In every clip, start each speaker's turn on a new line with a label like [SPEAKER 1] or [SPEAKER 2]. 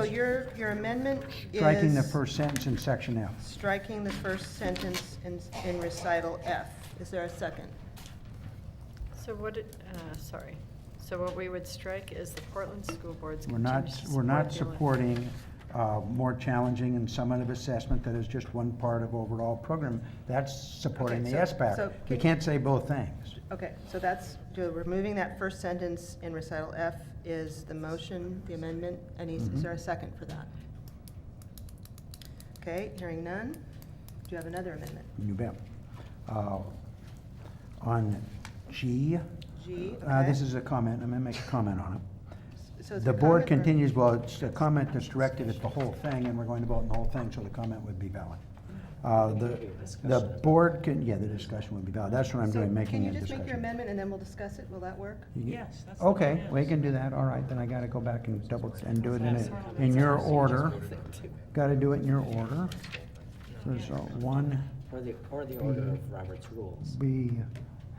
[SPEAKER 1] your, your amendment is.
[SPEAKER 2] striking the first sentence in section F.
[SPEAKER 1] Striking the first sentence in, in recital F. Is there a second?
[SPEAKER 3] So what, it- uh, sorry, so what we would strike is the Portland School Board's
[SPEAKER 2] We're not,
[SPEAKER 3] continues to
[SPEAKER 2] we're
[SPEAKER 3] support
[SPEAKER 2] not
[SPEAKER 3] the
[SPEAKER 2] supporting uh, more challenging and summative assessment that is just one part of overall program. That's supporting
[SPEAKER 1] Okay,
[SPEAKER 2] the
[SPEAKER 1] so- so
[SPEAKER 2] SBAC. You
[SPEAKER 1] can-
[SPEAKER 2] can't say both things.
[SPEAKER 1] Okay, so that's, so removing that first sentence in recital F is the motion, the amendment, and is
[SPEAKER 2] Mm-hmm.
[SPEAKER 1] is there a second for that? Okay, hearing none. Do you have another amendment?
[SPEAKER 2] You bet. Uh, On G.
[SPEAKER 1] G,
[SPEAKER 2] uh, This
[SPEAKER 1] okay.
[SPEAKER 2] is a comment, I'm gonna make a comment on it.
[SPEAKER 1] So is
[SPEAKER 2] The
[SPEAKER 1] there
[SPEAKER 2] board
[SPEAKER 1] comment or-
[SPEAKER 2] continues, well, it's a comment that's directed at the whole thing, and we're going to vote on the whole thing, so the comment would be valid.
[SPEAKER 1] Mm-hmm.
[SPEAKER 2] Uh, The, the board can, yeah, the discussion would be valid, that's what I'm
[SPEAKER 1] So
[SPEAKER 2] doing, making a
[SPEAKER 1] Can you just make your
[SPEAKER 2] discussion.
[SPEAKER 1] amendment and then we'll discuss it? Will that work?
[SPEAKER 2] You get-
[SPEAKER 4] Yes, that's the
[SPEAKER 2] Okay,
[SPEAKER 4] plan.
[SPEAKER 2] we can do that, all right, then I gotta go back and double, and do it in, a- in your order. Gotta do it in your order. There's a one,
[SPEAKER 4] Or the, or the order of Robert's rules.
[SPEAKER 2] we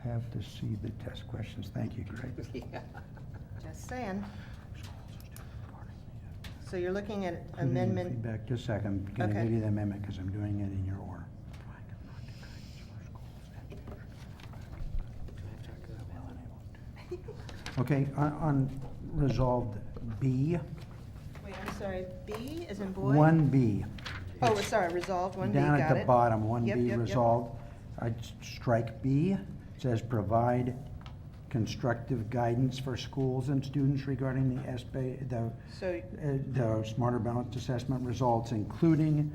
[SPEAKER 2] have to see the test questions, thank you, Greg.
[SPEAKER 4] Yeah.
[SPEAKER 1] Just saying. So you're looking at amendment,
[SPEAKER 2] Back just a second, I'm gonna
[SPEAKER 1] Okay.
[SPEAKER 2] give you the amendment, because I'm doing it in your order. Okay, on, on resolved B,
[SPEAKER 1] wait, I'm sorry, B is in boy?
[SPEAKER 2] one B.
[SPEAKER 1] Oh, sorry, resolved, one B, got
[SPEAKER 2] Down
[SPEAKER 1] it.
[SPEAKER 2] at the bottom, one
[SPEAKER 1] Yep, yep,
[SPEAKER 2] B
[SPEAKER 1] yep.
[SPEAKER 2] resolved, I'd s- strike B, It says provide constructive guidance for schools and students regarding the SBA, the
[SPEAKER 1] So,
[SPEAKER 2] uh, the Smarter Balanced Assessment results, including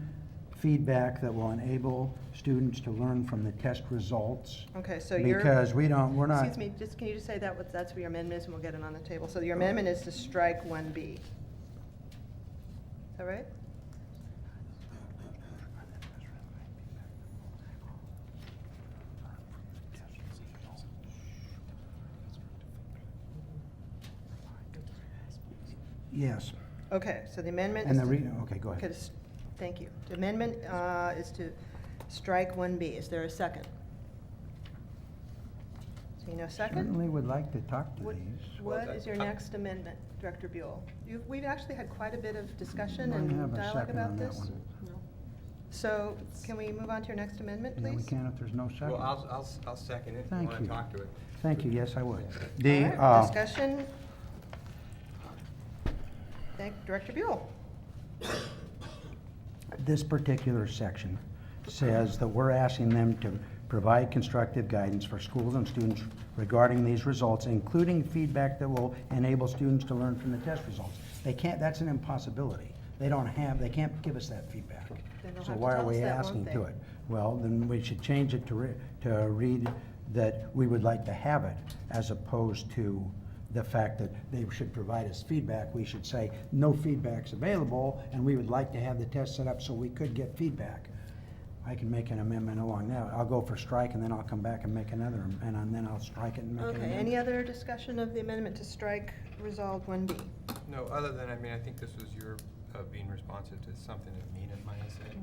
[SPEAKER 2] feedback that will enable students to learn from the test results.
[SPEAKER 1] okay, so you're.
[SPEAKER 2] Because we don't, we're not,
[SPEAKER 1] Excuse me, just, can you just say that, what, that's what your amendment is, and we'll get it on the table. So your amendment is to strike one B. Is that right?
[SPEAKER 2] yes.
[SPEAKER 1] Okay, so the amendment is
[SPEAKER 2] And
[SPEAKER 1] to.
[SPEAKER 2] the re, okay, go
[SPEAKER 1] Okay,
[SPEAKER 2] ahead.
[SPEAKER 1] s- Thank you. The amendment uh, is to strike one B. Is there a second? So you know, second?
[SPEAKER 2] Certainly would like to talk to
[SPEAKER 1] What-
[SPEAKER 2] these.
[SPEAKER 1] What is your next amendment, Director Buell? You've- We've actually had quite a bit of discussion
[SPEAKER 2] Don't have
[SPEAKER 1] and
[SPEAKER 2] a
[SPEAKER 1] dialogue
[SPEAKER 2] second on
[SPEAKER 1] about
[SPEAKER 2] that
[SPEAKER 1] this.
[SPEAKER 2] one.
[SPEAKER 1] So can we move on to your next amendment,
[SPEAKER 2] Yeah, we
[SPEAKER 1] please?
[SPEAKER 2] can if there's no second.
[SPEAKER 5] Well, I'll, I'll, s- I'll second it, if you
[SPEAKER 2] Thank
[SPEAKER 5] want
[SPEAKER 2] you.
[SPEAKER 5] to talk to it.
[SPEAKER 2] Thank you, yes, I would.
[SPEAKER 1] All
[SPEAKER 2] The,
[SPEAKER 1] right,
[SPEAKER 2] uh,
[SPEAKER 1] Discussion. Thank Director Buell.
[SPEAKER 2] this particular section says that we're asking them to provide constructive guidance for schools and students regarding these results, including feedback that will enable students to learn from the test results. They can't, that's an impossibility. They don't have, they can't give us that feedback.
[SPEAKER 1] Then they'll
[SPEAKER 2] So
[SPEAKER 1] have to
[SPEAKER 2] why are
[SPEAKER 1] tell us
[SPEAKER 2] we
[SPEAKER 1] that, won't
[SPEAKER 2] asking
[SPEAKER 1] they?
[SPEAKER 2] to it? Well, then we should change it to, re- to read that we would like to have it, as opposed to the fact that they should provide us feedback. We should say, no feedback's available, and we would like to have the test set up so we could get feedback. I can make an amendment along that. I'll go for strike, and then I'll come back and make another, am- and then I'll strike it and make an
[SPEAKER 1] Okay,
[SPEAKER 2] amendment.
[SPEAKER 1] any other discussion of the amendment to strike resolved one B?
[SPEAKER 5] No, other than, I mean, I think this was your uh, being responsive to something that Nina might have said.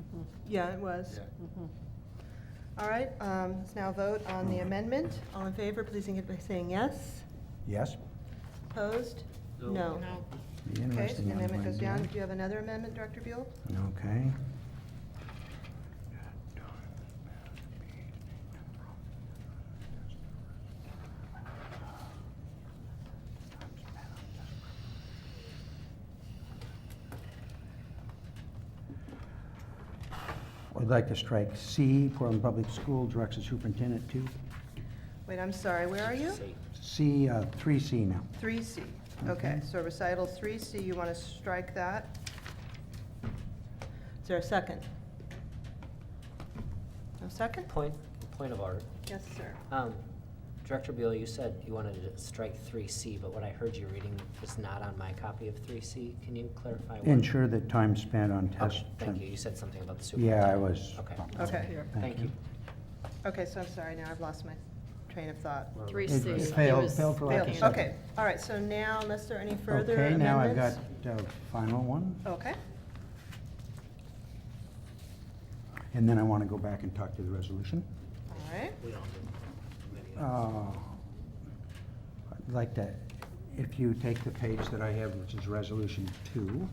[SPEAKER 1] Yeah, it was.
[SPEAKER 5] Yeah.
[SPEAKER 1] All right, um, let's now vote on the amendment. All in favor, please indicate by saying yes.
[SPEAKER 2] Yes?
[SPEAKER 1] Opposed? No.
[SPEAKER 2] Be
[SPEAKER 1] Okay, so
[SPEAKER 2] interesting
[SPEAKER 1] the
[SPEAKER 2] on
[SPEAKER 1] amendment goes
[SPEAKER 2] Wednesday.
[SPEAKER 1] down. Do you have another amendment, Director Buell?
[SPEAKER 2] Okay. I'd like to strike C, Portland Public School directs the superintendent to,
[SPEAKER 1] Wait, I'm sorry, where are you?
[SPEAKER 2] C, uh, 3C now.
[SPEAKER 1] Three C. Okay,
[SPEAKER 2] Mhm.
[SPEAKER 1] so recital three C, you want to strike that? Is there a second? No second?
[SPEAKER 6] Point, point of order.
[SPEAKER 1] Yes, sir.
[SPEAKER 6] Um, Director Buell, you said you wanted to strike three C, but what I heard you reading was not on my copy of three C. Can you clarify? what-
[SPEAKER 2] Ensure that time spent on test.
[SPEAKER 6] Okay, thank you. You said something about the
[SPEAKER 2] Yeah, I
[SPEAKER 6] superintendent.
[SPEAKER 2] was.
[SPEAKER 6] Okay.
[SPEAKER 1] Okay.
[SPEAKER 6] Thank you.
[SPEAKER 1] Okay, so I'm sorry, now I've lost my train of thought.
[SPEAKER 3] Portland- Three
[SPEAKER 2] It
[SPEAKER 3] C.
[SPEAKER 2] was
[SPEAKER 3] he
[SPEAKER 2] failed-
[SPEAKER 3] was
[SPEAKER 2] failed for lack of
[SPEAKER 3] thinking
[SPEAKER 1] Failed.
[SPEAKER 2] second.
[SPEAKER 1] Okay, all right, so now unless there are any further
[SPEAKER 2] Okay, now I've got
[SPEAKER 1] amendments?
[SPEAKER 2] the final one,
[SPEAKER 1] Okay,
[SPEAKER 2] and then I want to go back and talk to the resolution.
[SPEAKER 1] all right.
[SPEAKER 2] Uh, I'd like to, if you take the page that I have, which is Resolution Two,